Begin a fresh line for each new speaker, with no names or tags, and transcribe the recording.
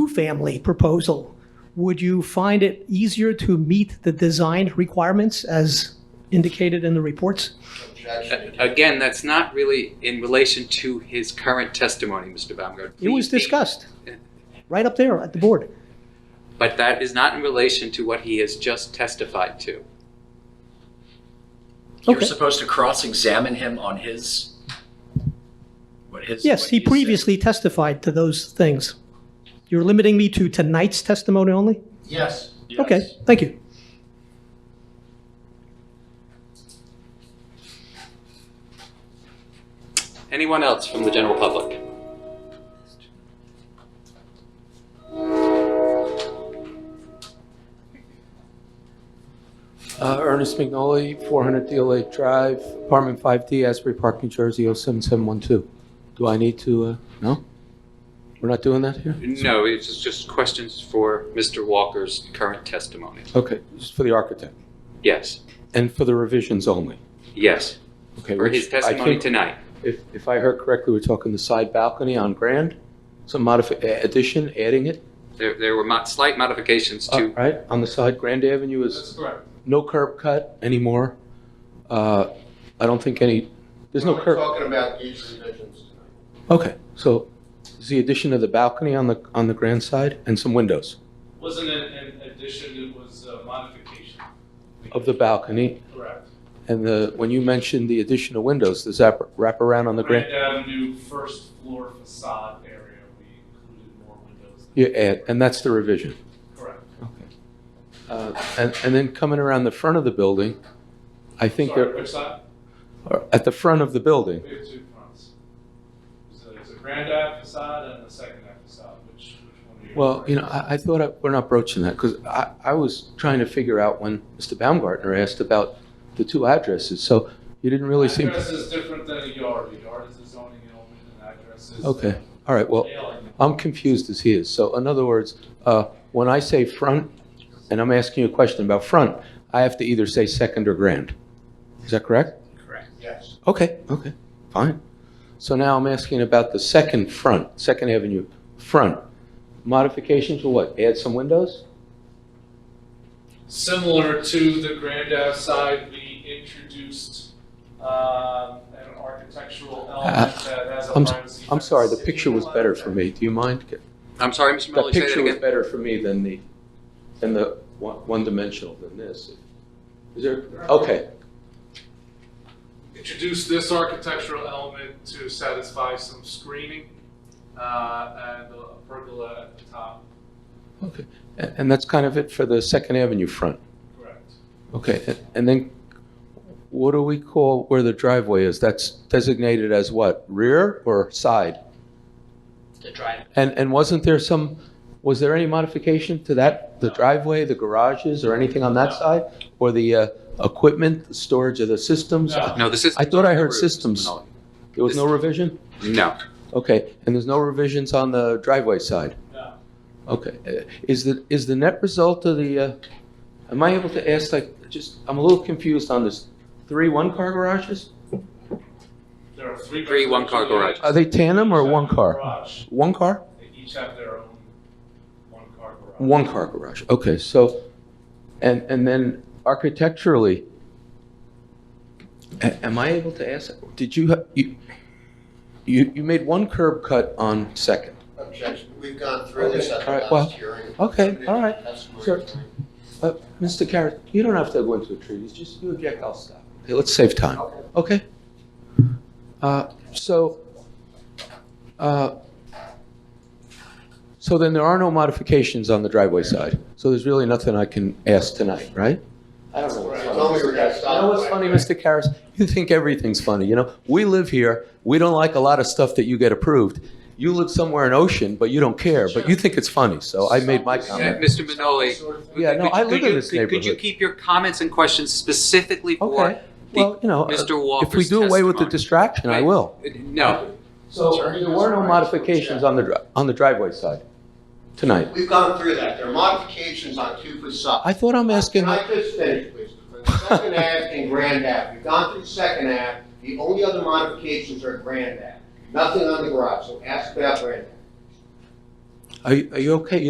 two-family proposal, would you find it easier to meet the design requirements as indicated in the reports?
Objection.
Uh, Again, that's not really in relation to his current testimony, Mr. Baumgart.
It was discussed, right up there at the board.
But that is not in relation to what he has just testified to.
You're
Okay.
supposed to cross-examine him on his, what his.
Yes,
what
he
said.
previously testified to those things. You're limiting me to tonight's testimony only?
Yes.
Okay,
Yes.
thank you.
Anyone else from the general public?
Uh, Ernest McNolly, 400 Deal Lake Drive, apartment 5D, Asbury Park, New Jersey, 07712. Do I need to, uh, no? We're not doing that here?
No, it's just questions for Mr. Walker's current testimony.
Okay, this is for the architect
Yes,
and for the revisions only.
yes,
Okay,
for
which
his
I
testimony
think-
tonight.
If, if I heard correctly, we're talking the side balcony on Grand, some modifi, a- addition, adding it,
There, there were mo- slight modifications
uh,
to,
right? On the side, Grand Avenue is
correct.
no curb cut anymore. Uh, I don't think any, there's no curb.
We're only talking about these revisions tonight.
Okay, so is the addition of the balcony on the, on the grand side and some windows
Wasn't an, an addition, it was a modification.
of the balcony?
Correct.
And the, when you mentioned the addition of windows, does that wrap around on the grand?
Grand Avenue first floor facade area, we included more windows.
You add, and that's the revision?
Correct.
Uh, And, and then coming around the front of the building, I think
Sorry,
there,
which side?
or at the front of the building,
We have two fronts. There's a, there's a Grand Ave facade and a Second Ave facade, which, which one are you?
well,
referring
you know,
to?
I, I thought I- we're not broaching that because I, I was trying to figure out when Mr. Baumgartner asked about the two addresses, so you didn't really seem,
Address is different than a yard. A yard is a zoning element and address is.
okay, all right, well.
Mailing.
I'm confused as he is. So in other words, uh, when I say front, and I'm asking you a question about front, I have to either say second or grand. Is that correct?
Yes.
Okay, okay, fine. So now I'm asking about the second front, Second Avenue front. Modifications will what? Add some windows?
Similar to the Grand Ave side, we introduced um, an architectural element that has a
Uh, I'm-
privacy.
I'm sorry, the
fence.
picture was better for me. Do you mind?
I'm sorry, Mr.
That
Mully, say that
picture was
again.
better for me than the, than the one- one-dimensional than this. Is there, okay,
Introduced this architectural element to satisfy some screening uh, and a pergola at the top,
okay. And and that's kind of it for the Second Avenue front?
correct.
Okay, a- and then what do we call where the driveway is? That's designated as what, rear or side?
the drive.
And, and wasn't there some, was there any modification to that? The driveway, the garages, or anything on that
No.
side? Or the uh, equipment, the storage of the systems?
No.
No, the system.
I thought I heard systems. There was no revision?
No,
Okay, and there's no revisions on the driveway side?
No.
Okay, uh, is the, is the net result of the, uh, am I able to ask, like, just, I'm a little confused on this, three one-car garages?
There are three.
Three one-car
bedrooms.
Are they tandem or
Each have
one
their
car?
garage.
One car?
They each have their own one-car garage.
One car garage, okay, so, and, and then architecturally, a- am I able to ask, did you, ha- you, you, you made one curb cut on Second?
Objection. We've gone through this at
All right,
the
well,
last hearing.
okay,
Limited
all right,
testimony
sure.
tonight.
Uh, Mr. Carrot, you don't have to go into a treatise, just you object, I'll stop. Okay, let's save time, okay? Uh, So, uh, so then there are no modifications on the driveway side, so there's really nothing I can ask tonight, right? I don't know what's
I told
funny.
we were gonna
You
stop.
know what's funny, Mr. Karas? You think everything's funny, you know? We live here, we don't like a lot of stuff that you get approved. You live somewhere in Ocean, but you don't care, but you think it's funny, so I made my
Uh,
comment.
Mr. Minoli.
Yeah, no,
could-
I live
could
in
you-
this
could- Could you
neighborhood.
keep your comments and questions specifically for
Okay, well, you know, uh,
Mr.
if we
Walker's
do away with the
testimony?
distraction, I will.
No,
So
Attorney
there were no
has
modifications on the, dri- on the driveway side tonight?
We've gone through that. There are modifications on two facades.
I thought I'm asking,
Can I just finish, please? Second Ave and Grand Ave, we've gone through Second Ave, the only other modifications are Grand Ave, nothing on the garage, so ask about Grand Ave.
are you, are you okay?